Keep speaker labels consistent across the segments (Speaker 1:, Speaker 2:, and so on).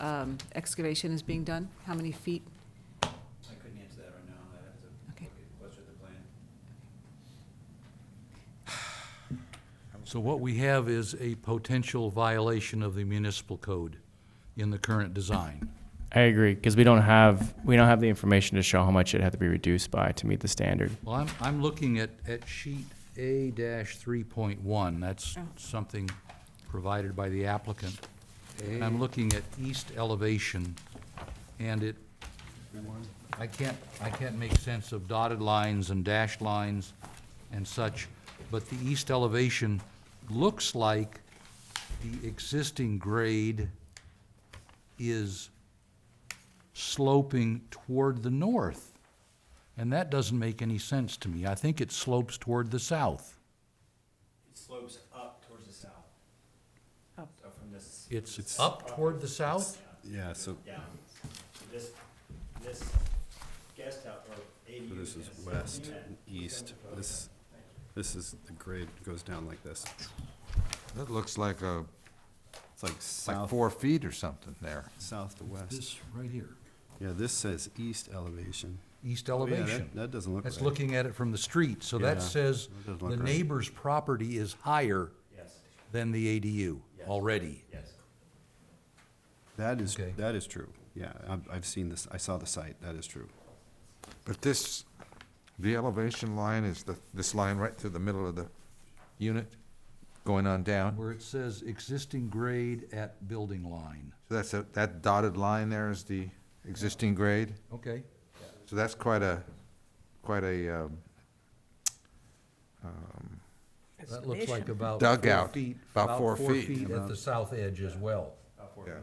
Speaker 1: um, excavation is being done? How many feet?
Speaker 2: I couldn't answer that right now, I'd have to look
Speaker 1: Okay.
Speaker 2: at, what's with the plan.
Speaker 3: So what we have is a potential violation of the municipal code in the current design.
Speaker 4: I agree because we don't have we don't have the information to show how much it had to be reduced by to meet the standard.
Speaker 3: Well, I'm, I'm looking at, at sheet A three point one, that's
Speaker 1: Oh.
Speaker 3: something provided by the applicant. And I'm looking at east elevation, and it, I can't, I can't make sense of dotted lines and dashed lines and such, but the east elevation looks like the existing grade is sloping toward the north. And that doesn't make any sense to me. I think it slopes toward the south.
Speaker 2: It slopes up towards the south.
Speaker 1: Up.
Speaker 2: So from this,
Speaker 3: It's up toward the south?
Speaker 5: Yeah, so,
Speaker 2: down, So this, this guest house or
Speaker 5: so
Speaker 2: ADU.
Speaker 5: this is
Speaker 2: guest-
Speaker 5: west, and east, this, this is, the grade goes down like this.
Speaker 6: That looks like a,
Speaker 5: It's like
Speaker 6: like
Speaker 5: south,
Speaker 6: four feet or something there.
Speaker 5: south to west.
Speaker 3: This right here,
Speaker 5: Yeah, this says east elevation.
Speaker 3: east
Speaker 5: Oh, yeah, that-
Speaker 3: elevation.
Speaker 5: That doesn't look right.
Speaker 3: That's looking at it from the street, so
Speaker 5: Yeah,
Speaker 3: that says
Speaker 5: that doesn't
Speaker 3: the
Speaker 5: look right.
Speaker 3: neighbor's property is higher
Speaker 2: Yes,
Speaker 3: than the ADU already.
Speaker 2: yes.
Speaker 5: That is,
Speaker 3: Okay.
Speaker 5: that is true, yeah, I've, I've seen this, I saw the site, that is true.
Speaker 6: But this, the elevation line is the, this line right through the middle of the unit, going on down?
Speaker 3: Where it says existing grade at building line.
Speaker 6: So that's, a- that dotted line there is the existing grade?
Speaker 3: Okay,
Speaker 6: So that's quite a, quite a, um,
Speaker 3: that looks like about four
Speaker 6: Dugout,
Speaker 3: feet.
Speaker 6: about four feet.
Speaker 3: at
Speaker 5: Uh-huh.
Speaker 3: the south edge as well.
Speaker 6: yeah.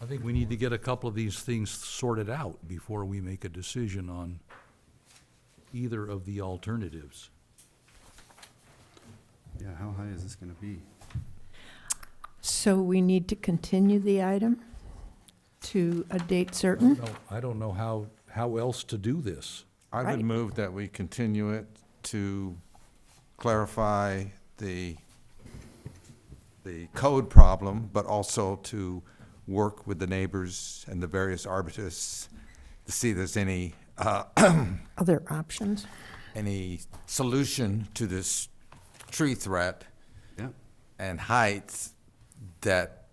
Speaker 3: I think we need to get a couple of these things sorted out before we make a decision on either of the alternatives.
Speaker 5: Yeah, how high is this gonna be?
Speaker 7: So we need to continue the item to a date certain?
Speaker 3: No, I don't know how, how else to do this.
Speaker 6: I
Speaker 7: Right.
Speaker 6: would move that we continue it to clarify the, the code problem, but also to work with the neighbors and the various arbiters to see if there's any, uh,
Speaker 7: Other options?
Speaker 6: any solution to this tree threat
Speaker 5: Yeah,
Speaker 6: and heights that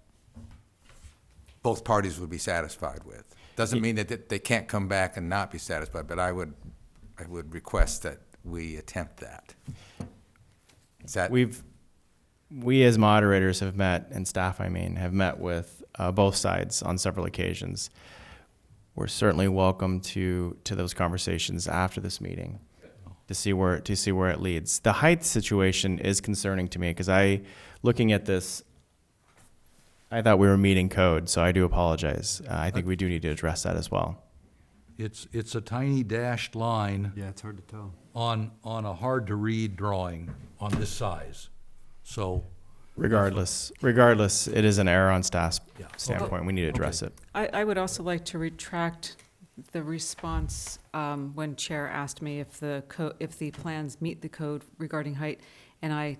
Speaker 6: both parties would be satisfied with. Doesn't mean that that they can't come back and not be satisfied, but I would, I would request that we attempt that. Is that,
Speaker 4: We've we as moderators have met and staff I mean have met with uh, both sides on several occasions. We're certainly welcome to to those conversations after this meeting to see where to see where it leads. The height situation is concerning to me because I looking at this I thought we were meeting code, so I do apologize. Uh, I think we do need to address that as well.
Speaker 3: It's, it's a tiny dashed line
Speaker 5: yeah, it's hard to tell.
Speaker 3: on, on a hard-to-read drawing on this size. So,
Speaker 4: Regardless, regardless, it is an error on staff's
Speaker 3: Yeah. Okay.
Speaker 4: standpoint. We need to address it.
Speaker 1: I, I would also like to retract the response um, when Chair asked me if the, co- if the plans meet the code regarding height, and I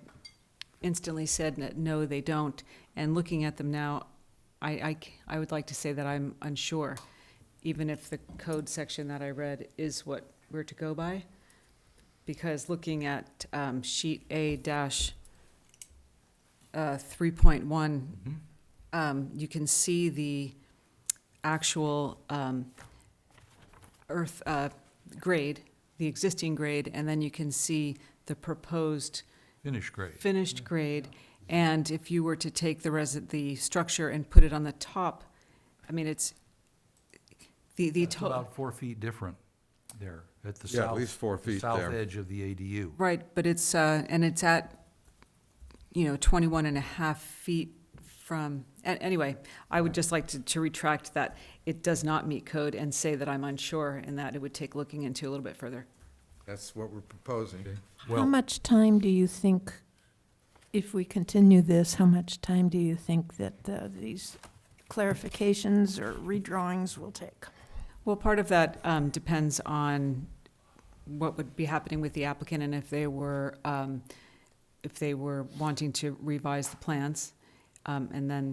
Speaker 1: instantly said that, no, they don't. And looking at them now, I, I c- I would like to say that I'm unsure, even if the code section that I read is what we're to go by. Because looking at um, sheet A dash uh, 3.1, um, you can see the actual um, earth uh, grade, the existing grade, and then you can see the proposed
Speaker 3: finish grade.
Speaker 1: finished grade. And if you were to take the resi, the structure and put it on the top, I mean, it's, the, the
Speaker 3: It's
Speaker 1: total,
Speaker 3: about four feet different there, at the
Speaker 6: Yeah, at
Speaker 3: south.
Speaker 6: least four
Speaker 3: the
Speaker 6: feet
Speaker 3: South
Speaker 6: there.
Speaker 3: edge of the ADU.
Speaker 1: right, but it's, uh, and it's at, you know, 21 and a half feet from, a- anyway, I would just like to, to retract that it does not meet code and say that I'm unsure and that it would take looking into a little bit further.
Speaker 6: that's what we're proposing?
Speaker 7: How
Speaker 3: Well,
Speaker 7: much time do you think, if we continue this, how much time do you think that uh, these clarifications or redrawings will take?
Speaker 1: Well, part of that um, depends on what would be happening with the applicant and if they were um, if they were wanting to revise the plans. Um, and then